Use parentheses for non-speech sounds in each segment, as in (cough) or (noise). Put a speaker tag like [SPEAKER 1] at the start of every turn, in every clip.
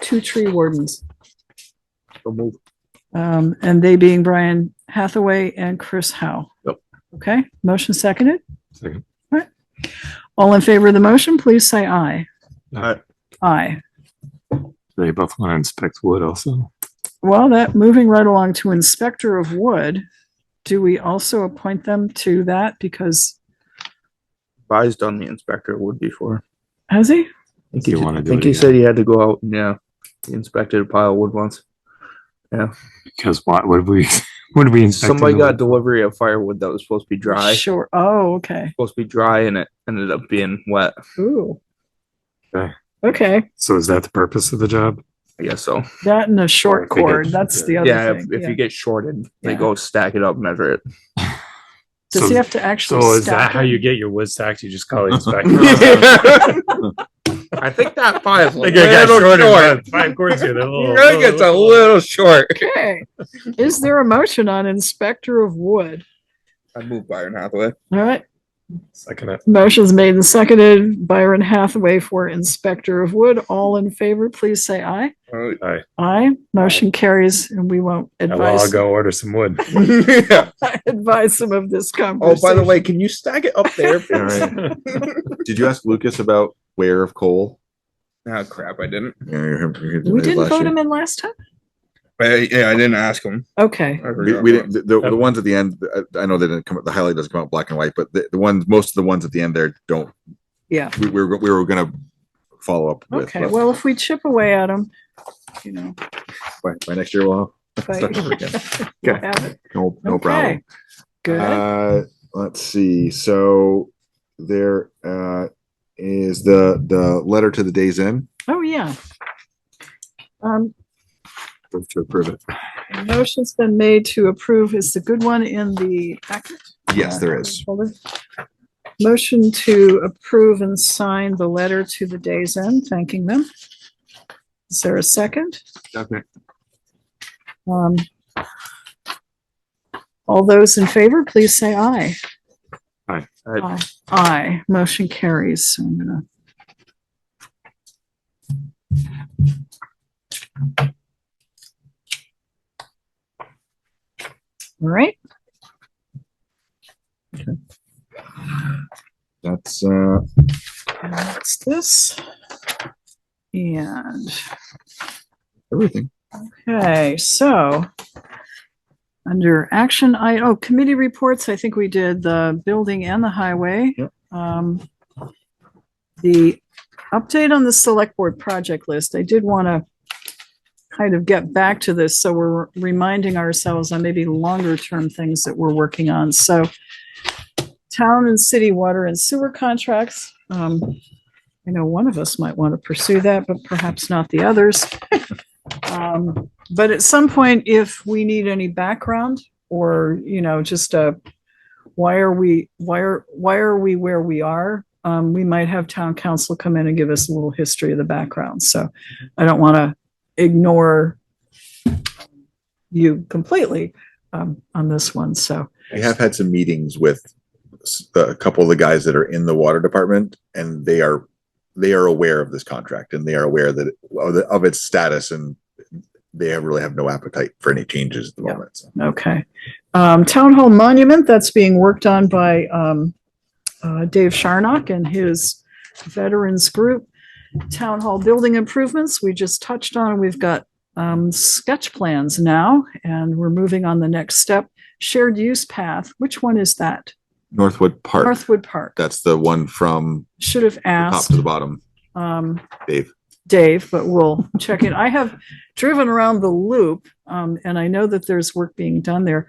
[SPEAKER 1] two tree wardens,
[SPEAKER 2] So move.
[SPEAKER 1] um, and they being Brian Hathaway and Chris Howe.
[SPEAKER 2] Yep.
[SPEAKER 1] Okay, motion seconded.
[SPEAKER 3] Second.
[SPEAKER 1] All in favor of the motion, please say aye.
[SPEAKER 2] Aye.
[SPEAKER 1] Aye.
[SPEAKER 3] They both want to inspect wood also.
[SPEAKER 1] Well, that, moving right along to Inspector of Wood, do we also appoint them to that? Because,
[SPEAKER 2] Bai's done the inspector wood before.
[SPEAKER 1] has he?
[SPEAKER 2] I think he,
[SPEAKER 3] Do you
[SPEAKER 2] did-
[SPEAKER 3] wanna
[SPEAKER 2] I
[SPEAKER 3] do
[SPEAKER 2] think
[SPEAKER 3] it
[SPEAKER 2] he
[SPEAKER 3] again?
[SPEAKER 2] said he had to go out, and, yeah, he inspected a pile of wood once.
[SPEAKER 3] Because what would we, (laughs) would we inspect?
[SPEAKER 2] Somebody got delivery of firewood that was supposed to be dry,
[SPEAKER 1] Sure. Oh, okay.
[SPEAKER 2] supposed to be dry, and it ended up being wet.
[SPEAKER 1] Ooh.
[SPEAKER 3] Okay.
[SPEAKER 1] Okay,
[SPEAKER 3] So is that the purpose of the job?
[SPEAKER 2] I guess so.
[SPEAKER 1] that and a
[SPEAKER 3] Or
[SPEAKER 1] short
[SPEAKER 3] if they get-
[SPEAKER 1] cord, that's the
[SPEAKER 2] Yeah,
[SPEAKER 1] other
[SPEAKER 2] if,
[SPEAKER 1] thing.
[SPEAKER 2] if
[SPEAKER 1] yeah.
[SPEAKER 2] you get shorted, they
[SPEAKER 1] Yeah.
[SPEAKER 2] go stack it up, measure it.
[SPEAKER 1] Does
[SPEAKER 3] So-
[SPEAKER 1] he have to actually?
[SPEAKER 4] So is
[SPEAKER 1] stack
[SPEAKER 4] that how
[SPEAKER 1] it?
[SPEAKER 4] you get your wood stacked? You just
[SPEAKER 3] (laughs)
[SPEAKER 4] call the inspector?
[SPEAKER 2] (laughs) I think that pile's a (laughs)
[SPEAKER 4] Like, I got
[SPEAKER 2] little
[SPEAKER 4] shorted
[SPEAKER 2] short.
[SPEAKER 4] by Five cords
[SPEAKER 2] (laughs)
[SPEAKER 4] here. they're little-
[SPEAKER 2] Really gets a little short.
[SPEAKER 1] Okay. Is there a motion on Inspector of Wood?
[SPEAKER 2] I moved Byron Hathaway.
[SPEAKER 1] All right,
[SPEAKER 4] Second it.
[SPEAKER 1] motion's made and seconded. Byron Hathaway for Inspector of Wood. All in favor, please say aye.
[SPEAKER 2] Oh. (laughs)
[SPEAKER 1] Aye. Motion carries and we won't
[SPEAKER 4] Now I'll
[SPEAKER 1] advise,
[SPEAKER 4] go order some wood.
[SPEAKER 2] yeah.
[SPEAKER 1] (laughs) advise him of this conversation.
[SPEAKER 2] Oh, by the way, can you stack it up there? please?
[SPEAKER 5] (laughs) All
[SPEAKER 4] (laughs)
[SPEAKER 5] right. Did you ask Lucas about where of coal?
[SPEAKER 2] Ah, crap, I didn't.
[SPEAKER 1] We didn't vote him in last time?
[SPEAKER 2] I, yeah, I didn't ask him.
[SPEAKER 1] Okay,
[SPEAKER 2] I
[SPEAKER 5] We,
[SPEAKER 2] forgot.
[SPEAKER 5] we didn't, the, the- the ones at the end, I, I know they didn't come, the highlight doesn't come out black and white, but the, the ones, most of the ones at the end there don't,
[SPEAKER 1] yeah.
[SPEAKER 5] we, we were, we were gonna follow up with.
[SPEAKER 1] Okay,
[SPEAKER 5] but
[SPEAKER 1] well, if we chip away at him, you know,
[SPEAKER 5] By, by next year, we'll,
[SPEAKER 1] but
[SPEAKER 5] Start over again.
[SPEAKER 1] we'll have it.
[SPEAKER 5] no, no problem.
[SPEAKER 1] Okay. Good.
[SPEAKER 5] Uh, let's see, so there, uh, is the, the letter to the Days Inn,
[SPEAKER 1] Oh, yeah. Um,
[SPEAKER 5] Move to approve it.
[SPEAKER 1] A Motion's been made to approve is the good one in the packet.
[SPEAKER 5] Yes, there is.
[SPEAKER 1] Hold it. Motion to approve and sign the letter to the Days End, thanking them. Is there a second? Um, all those in favor, please say aye.
[SPEAKER 2] I,
[SPEAKER 1] Aye, motion carries. So I'm gonna. All right,
[SPEAKER 5] That's, uh,
[SPEAKER 1] and that's this. And,
[SPEAKER 5] everything.
[SPEAKER 1] okay, so under action, I, oh, committee reports, I think we did the building and the highway.
[SPEAKER 5] Yep.
[SPEAKER 1] Um, the update on the select board project list, I did want to kind of get back to this, so we're reminding ourselves on maybe longer term things that we're working on, so town and city water and sewer contracts, um, I know one of us might want to pursue that, but perhaps not the others. (laughs) Um, but at some point, if we need any background or, you know, just a why are we, why are, why are we where we are? Um, we might have town council come in and give us a little history of the background. So I don't want to ignore you completely um, on this one. So,
[SPEAKER 5] We have had some meetings with s- a couple of the guys that are in the water department and they are, they are aware of this contract and they are aware that of the- of its status and they have- really have no appetite for any changes at the
[SPEAKER 1] Yeah.
[SPEAKER 5] moment. so.
[SPEAKER 1] okay. Um, town hall monument, that's being worked on by, um, uh, Dave Sharnock and his veterans group. Town hall building improvements, we just touched on, we've got, um, sketch plans now, and we're moving on the next step. Shared use path, which one is that?
[SPEAKER 5] Northwood Park,
[SPEAKER 1] Northwood Park,
[SPEAKER 5] that's the one from
[SPEAKER 1] should have
[SPEAKER 5] the top to
[SPEAKER 1] asked,
[SPEAKER 5] the bottom,
[SPEAKER 1] um,
[SPEAKER 5] Dave.
[SPEAKER 1] Dave, but we'll check it. I have driven around the loop, um, and I know that there's work being done there.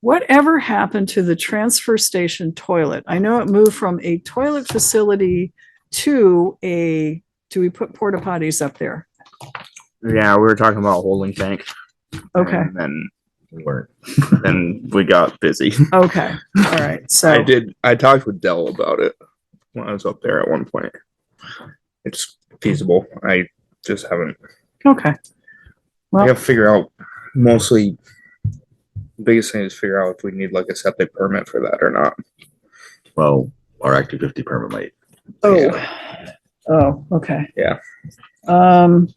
[SPEAKER 1] Whatever happened to the transfer station toilet? I know it moved from a toilet facility to a, do we put porta potties up there?
[SPEAKER 2] yeah, we were talking about holding tank.
[SPEAKER 1] Okay,
[SPEAKER 2] And then
[SPEAKER 5] We weren't.
[SPEAKER 2] (laughs) then we got busy.
[SPEAKER 1] okay, all right,
[SPEAKER 2] I
[SPEAKER 1] so,
[SPEAKER 2] did. I talked with Dell about it when I was up there at one point. It's feasible. I just haven't.
[SPEAKER 1] okay.
[SPEAKER 2] We
[SPEAKER 1] Well-
[SPEAKER 2] have to figure out mostly. Biggest thing is figure out if we need like a septic permit for that or not.
[SPEAKER 5] Well, our active fifty permit might.
[SPEAKER 1] Oh, oh, okay.
[SPEAKER 2] Yeah.
[SPEAKER 1] Um,